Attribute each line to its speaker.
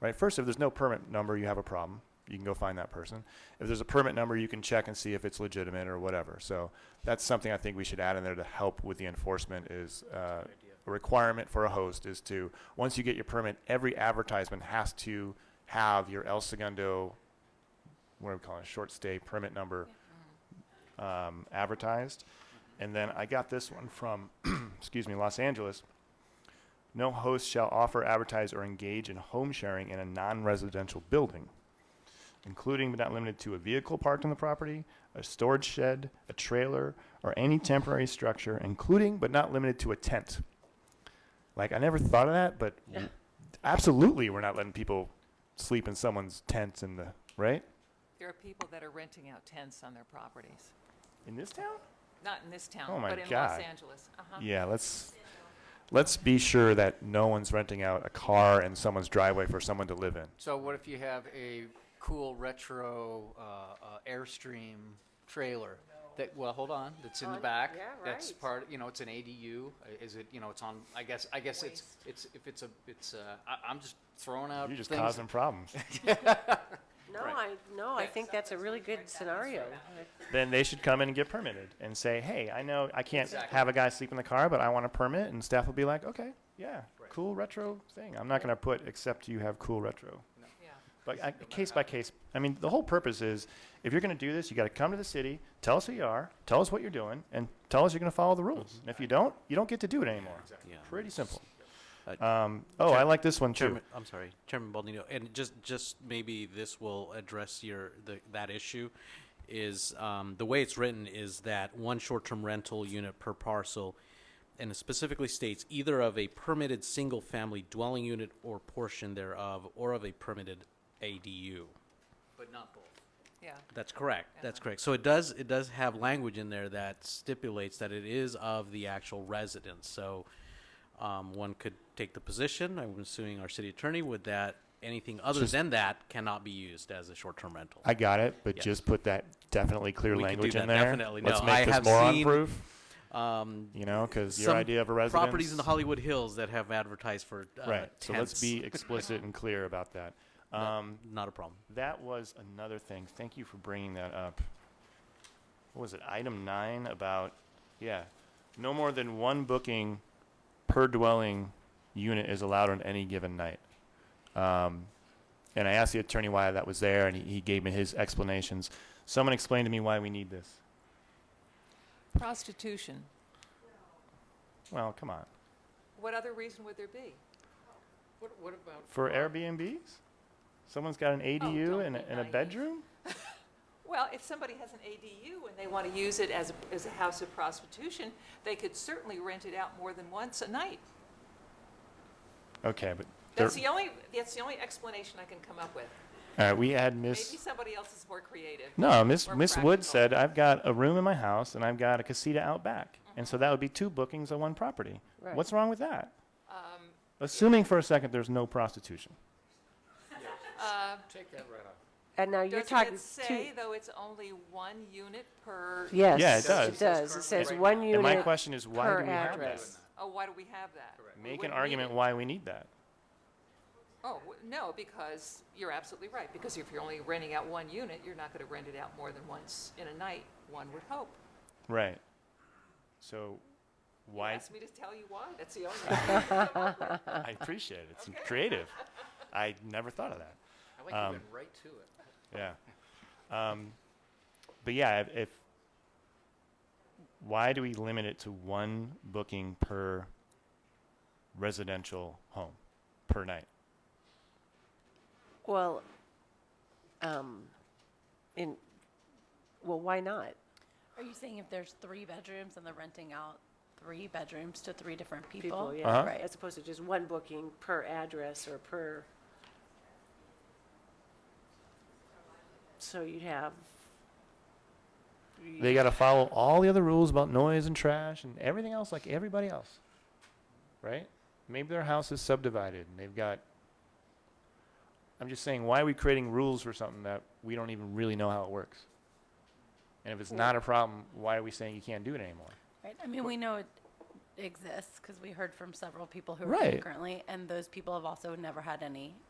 Speaker 1: right? First, if there's no permit number, you have a problem. You can go find that person. If there's a permit number, you can check and see if it's legitimate or whatever. So that's something I think we should add in there to help with the enforcement is, uh, a requirement for a host is to, once you get your permit, every advertisement has to have your El Segundo, what do we call it, short stay permit number, um, advertised. And then I got this one from, excuse me, Los Angeles. No host shall offer, advertise, or engage in home sharing in a non-residential building, including but not limited to a vehicle parked on the property, a storage shed, a trailer, or any temporary structure, including but not limited to a tent. Like, I never thought of that, but w- absolutely, we're not letting people sleep in someone's tent in the, right?
Speaker 2: There are people that are renting out tents on their properties.
Speaker 1: In this town?
Speaker 2: Not in this
Speaker 1: Oh
Speaker 2: town,
Speaker 1: my
Speaker 2: but in Los
Speaker 1: God.
Speaker 2: Angeles. Uh-huh.
Speaker 1: Yeah, let's, let's be sure that no one's renting out a car in someone's driveway for someone to live in.
Speaker 3: So what if you have a cool retro uh, uh, Airstream trailer? That, well, hold on, that's in the
Speaker 4: On-
Speaker 3: back.
Speaker 4: Oh, yeah,
Speaker 3: That's
Speaker 4: right.
Speaker 3: part, you know, it's an ADU. Uh, Is it, you know, it's on, I guess, I guess it's, it's, if it's a, it's, uh, I, I'm just throwing out
Speaker 1: You're just
Speaker 3: things.
Speaker 1: causing problems.
Speaker 4: No, I,
Speaker 3: Right.
Speaker 4: no, I think that's a really good scenario.
Speaker 1: then they should come in and get permitted and say, hey, I know I can't
Speaker 3: Exactly.
Speaker 1: have a guy sleep in the car, but I want a permit. And staff will be like, okay, yeah,
Speaker 3: Right.
Speaker 1: cool retro thing. I'm not going to put except you have cool retro.
Speaker 2: Yeah.
Speaker 1: But I, case by case, I mean, the whole purpose is if you're going to do this, you got to come to the city, tell us who you are, tell us what you're doing, and tell us you're going to follow the rules.
Speaker 3: Mm-hmm.
Speaker 1: And if you don't, you don't get to do it anymore.
Speaker 5: Yeah.
Speaker 1: Pretty simple.
Speaker 5: Uh,
Speaker 1: Um, oh, I
Speaker 5: Chair-
Speaker 1: like this one too.
Speaker 5: Chairman, I'm sorry, Chairman Baldino, and just, just maybe this will address your, the, that issue, is, um, the way it's written is that one short-term rental unit per parcel, and it specifically states either of a permitted single-family dwelling unit or portion thereof, or of a permitted ADU.
Speaker 3: But not both.
Speaker 2: Yeah.
Speaker 5: That's correct, that's correct. So it does, it does have language in there that stipulates that it is of the actual residence, so, um, one could take the position, I'm assuming our city attorney would that, anything other than that cannot be used as a short-term rental.
Speaker 1: I got it, but
Speaker 5: Yes.
Speaker 1: just put that definitely clear
Speaker 5: We could do
Speaker 1: language in
Speaker 5: that,
Speaker 1: there.
Speaker 5: definitely.
Speaker 1: Let's
Speaker 5: No,
Speaker 1: make
Speaker 5: I
Speaker 1: this
Speaker 5: have
Speaker 1: moron
Speaker 5: seen
Speaker 1: proof.
Speaker 5: Um,
Speaker 1: You know, because your
Speaker 5: some
Speaker 1: idea of a residence.
Speaker 5: Properties in the Hollywood Hills that have advertised for uh,
Speaker 1: Right. So let's
Speaker 5: tents.
Speaker 1: be explicit and clear about that.
Speaker 5: Not-
Speaker 1: Um,
Speaker 5: not a problem.
Speaker 1: that was another thing. Thank you for bringing that up. What was it? Item nine about, yeah, no more than one booking per dwelling unit is allowed on any given night. Um, and I asked the attorney why that was there, and he, he gave me his explanations. Someone explained to me why we need this.
Speaker 2: Prostitution.
Speaker 1: Well, come on.
Speaker 2: What other reason would there be?
Speaker 3: What, what about?
Speaker 1: For Airbnbs? Someone's got an ADU
Speaker 2: Oh, don't
Speaker 1: and, a,
Speaker 2: be
Speaker 1: and a
Speaker 2: naive.
Speaker 1: bedroom?
Speaker 2: Well, if somebody has an ADU and they want to use it as, a- as a house of prostitution, they could certainly rent it out more than once a night.
Speaker 1: Okay, but.
Speaker 2: That's
Speaker 1: there-
Speaker 2: the only, that's the only explanation I can come up with.
Speaker 1: All right, we had
Speaker 2: Maybe
Speaker 1: Miss.
Speaker 2: somebody else is more creative.
Speaker 1: No, Miss
Speaker 2: more
Speaker 1: Miss Wood
Speaker 2: practical.
Speaker 1: said I've got a room in my house and I've got a casita out back, and
Speaker 2: Mm-hmm.
Speaker 1: so that would be two bookings on one property.
Speaker 4: Right.
Speaker 1: What's wrong with that?
Speaker 2: Um,
Speaker 1: Assuming for a second there's no prostitution.
Speaker 2: uh,
Speaker 3: Take that right off.
Speaker 4: And now you're
Speaker 2: Doesn't
Speaker 4: talking
Speaker 2: it
Speaker 4: two,
Speaker 2: say, though, it's only one unit per?
Speaker 4: yes.
Speaker 1: Yeah, it does.
Speaker 4: It does. It says
Speaker 3: Right.
Speaker 4: one
Speaker 1: and my
Speaker 4: unit.
Speaker 1: question is, why
Speaker 4: per
Speaker 1: do we have that?
Speaker 4: address.
Speaker 2: Oh, why do we have that?
Speaker 3: Correct.
Speaker 2: We
Speaker 1: Make an
Speaker 2: wouldn't need
Speaker 1: argument
Speaker 2: it.
Speaker 1: why we need that.
Speaker 2: Oh, w- no, because you're absolutely right, because if you're only renting out one unit, you're not going to rent it out more than once in a night, one would hope.
Speaker 1: Right. So,
Speaker 2: You
Speaker 1: why?
Speaker 2: asked me to tell you why, that's the only. reason.
Speaker 1: I appreciate it. It's creative. I never thought of that.
Speaker 3: I like you
Speaker 1: Um,
Speaker 3: went right to it.
Speaker 1: Yeah. Um, but yeah, if, if why do we limit it to one booking per residential home per night?
Speaker 4: Well, um, in, well, why not?
Speaker 6: Are you saying if there's three bedrooms and they're renting out three bedrooms to three different people?
Speaker 4: People,
Speaker 1: Uh-huh.
Speaker 4: yeah,
Speaker 6: Right.
Speaker 4: as opposed to just one booking per address or per. So you'd have.
Speaker 1: They got to follow all the other rules about noise and trash and everything else, like everybody else, right? Maybe their house is subdivided and they've got. I'm just saying, why are we creating rules for something that we don't even really know how it works? And if it's not a problem, why are we saying you can't do it anymore?
Speaker 6: Right, I mean, we know it exists because we heard from several people who are
Speaker 1: Right.
Speaker 6: currently, and those people have also never had any